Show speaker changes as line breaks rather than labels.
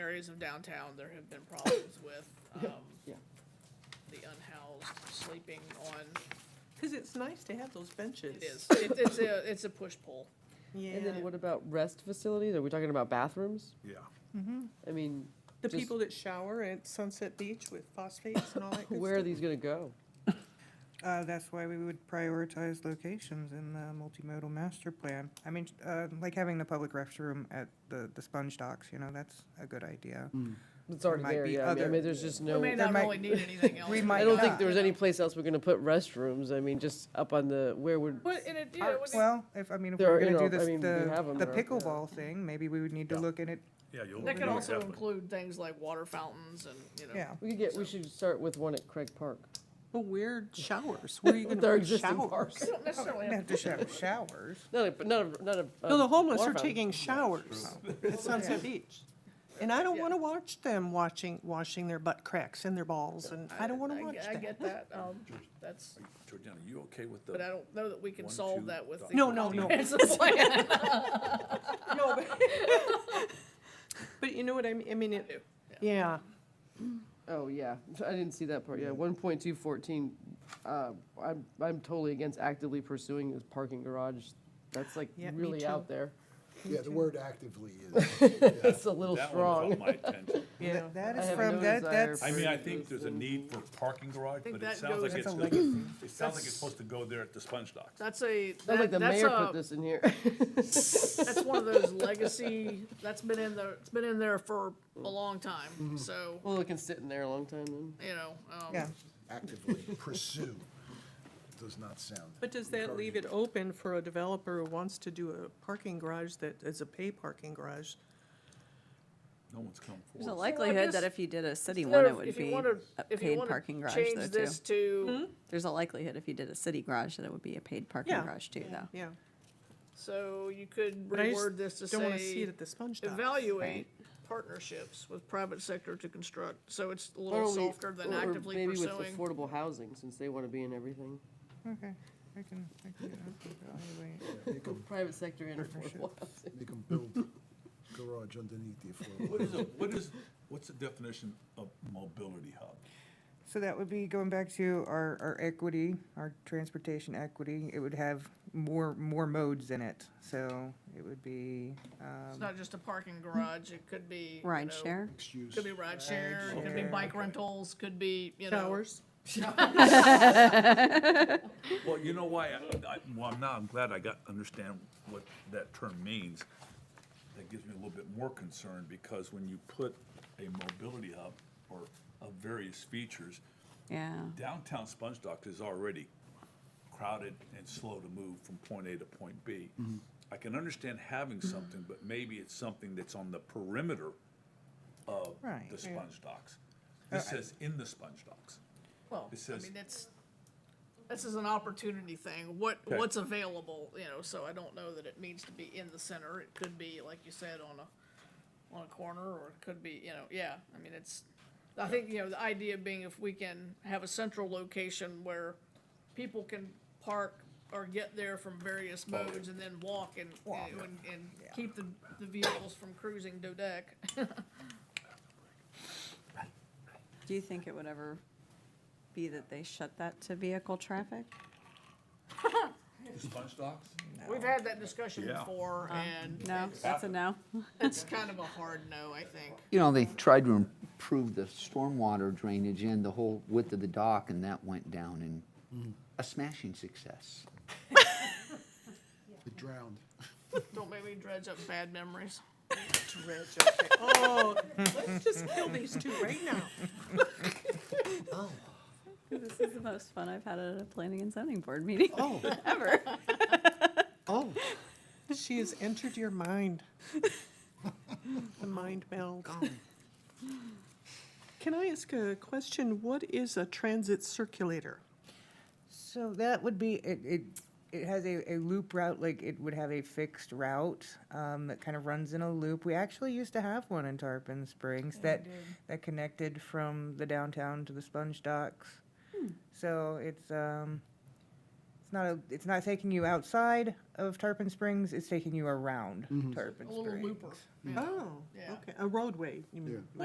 areas of downtown, there have been problems with, um,
yeah.
the unhoused sleeping on,
Because it's nice to have those benches.
it is, it- it's a, it's a push-pull.
And then
Yeah.
what about rest facilities? Are we talking about bathrooms?
Yeah.
I mean,
The
just-
people that shower at Sunset Beach with phosphates and all that good
where are
stuff.
these gonna go?
Uh, that's why we would prioritize locations in the multimodal master plan. I mean, uh, like having the public restroom at the, the sponge docks, you know, that's a good idea.
Hmm. It's already
might
there,
be
yeah. I mean- I
other-
mean, there's just
We
no,
may
I
not
might-
really need anything else. uh,
we
in
might
that.
don't
not.
think there was any place else we're gonna put restrooms. I mean, just up on the, where would,
But, and it, you know, when it-
Well, if, I mean, if
There are
we're gonna do
inter- I
this,
mean, we have 'em
the, the
there, yeah.
pickleball thing, maybe we would need to
Yeah.
look at it,
Yeah, you'll.
that could
you'll
also
definitely-
include things like water fountains and, you know.
yeah.
we could get, we should start with one at Craig Park.
Well, weird showers. Where are you
our
gonna put
existing
showers?
You don't necessarily
We
have
have to show showers.
Not a, but not a, not a.
No, the
uh,
homeless
water
are
fountain.
taking showers at Sunset Beach. And I don't
Yeah.
wanna watch them watching, washing their butt cracks and their balls, and I don't wanna
I-
watch
I
that.
get that, um, that's,
Georgiana, you okay with the?
but I don't know that we can
One,
solve
two,
that with the.
No, no, no.
comprehensive plan.
No, but- But you know what I mean, I mean, it, yeah,
Oh, yeah, I didn't see that part, yeah, one point two fourteen, uh, I'm, I'm totally against actively pursuing this parking garage, that's like
Yeah, me
really
too.
out there.
Yeah, the word actively is,
It's a little
That one
strong.
caught my attention.
yeah.
That
I
is
have no
from, that,
desire
that's,
for-
I mean, I think there's a need for parking garage,
think
but
that
it sounds like
goes-
it's,
That's a
the- it sounds like it's supposed to go there at the sponge docks.
That's a,
Sounds
that,
like the
that's
mayor put
a,
this in here.
that's one of those legacy, that's been in the, it's been in there for a long
Mm-hmm.
time, so,
Well, it can sit in there a long time then.
you know, um.
yeah.
actively pursue, does not sound.
But does that leave it open for a developer who wants to do a parking garage that is a pay parking garage?
No one's come
There's a
forward.
likelihood
guess-
that if you did a city
There-
one, it would
if you
be
wanna-
a
if you
paid
wanna
parking garage
Change
though
this
too.
Mm-hmm.
to,
There's a likelihood if you did a city garage that it would be a paid parking
Yeah.
garage too though.
Yeah.
so you could
But I just
reword this to
Don't wanna see it
say,
at the sponge docks.
evaluate partnerships with private sector to construct, so it's a
Why
little
don't we-
softer than
or
actively
Maybe with
pursuing.
affordable housing, since they wanna be in everything.
Okay, I can, I can, do that. evaluate.
You can,
Private sector and affordable
Partnerships.
housing.
you can build garage underneath the affordable.
What is, a- what is, what's the definition of mobility hub?
So that would be going back to our, our equity, our transportation equity, it would have more, more modes in it. So it would be,
It's
um,
not just a parking garage, it could be. you
Ride
know,
share.
Mixed use.
Could be ride share, could be bike rentals, could be, you know.
Showers.
Well, you know why, I- I, well, now I'm glad I got, understand what that term means. That gives me a little bit more concern, because when you put a mobility hub or of various features,
Yeah.
downtown Sponge Docks is already crowded and slow to move from point A to point B.
Mm-hmm.
I can understand having something, but maybe it's something that's on the perimeter of
Right,
the
yeah.
Sponge Docks. This says in the Sponge Docks.
Well,
It
I
says-
mean, it's, this is an opportunity thing, what,
Okay.
what's available, you know, so I don't know that it needs to be in the center. It could be, like you said, on a, on a corner, or it could be, you know, yeah, I mean, it's, I think, you know, the idea being if we can have a central location where people can park or get there from various modes and then walk and, you know, and, and keep the, the vehicles from cruising Dodec.
Do you think it would ever be that they shut that to vehicle traffic?
The Sponge Docks?
We've had that discussion
Yeah.
before, Uh-huh. and
No, that's a no.
it's kind of a hard no, I think.
You know, they tried to improve the stormwater drainage and the whole width of the dock, and that went down in a smashing success.
It drowned.
Don't make me dredge up bad memories.
Oh, let's just kill these two right now.
This is the most fun I've had at a planning and zoning board meeting
Oh.
ever.
Oh,
She has entered your mind. The mind meld. Can I ask a question? What is a transit circulator?
So that would be, it, it, it has a, a loop route, like it would have a fixed route, um, that kind of runs in a loop. We actually used to have one in Tarpon Springs that, that connected
Hmm.
from the downtown to the sponge docks. So it's, um, It's not a, it's not taking you outside of Tarpon Springs, it's taking you around Tarpon
a
Springs.
little looper. yeah.
Oh,
Yeah.
okay, a roadway, you mean?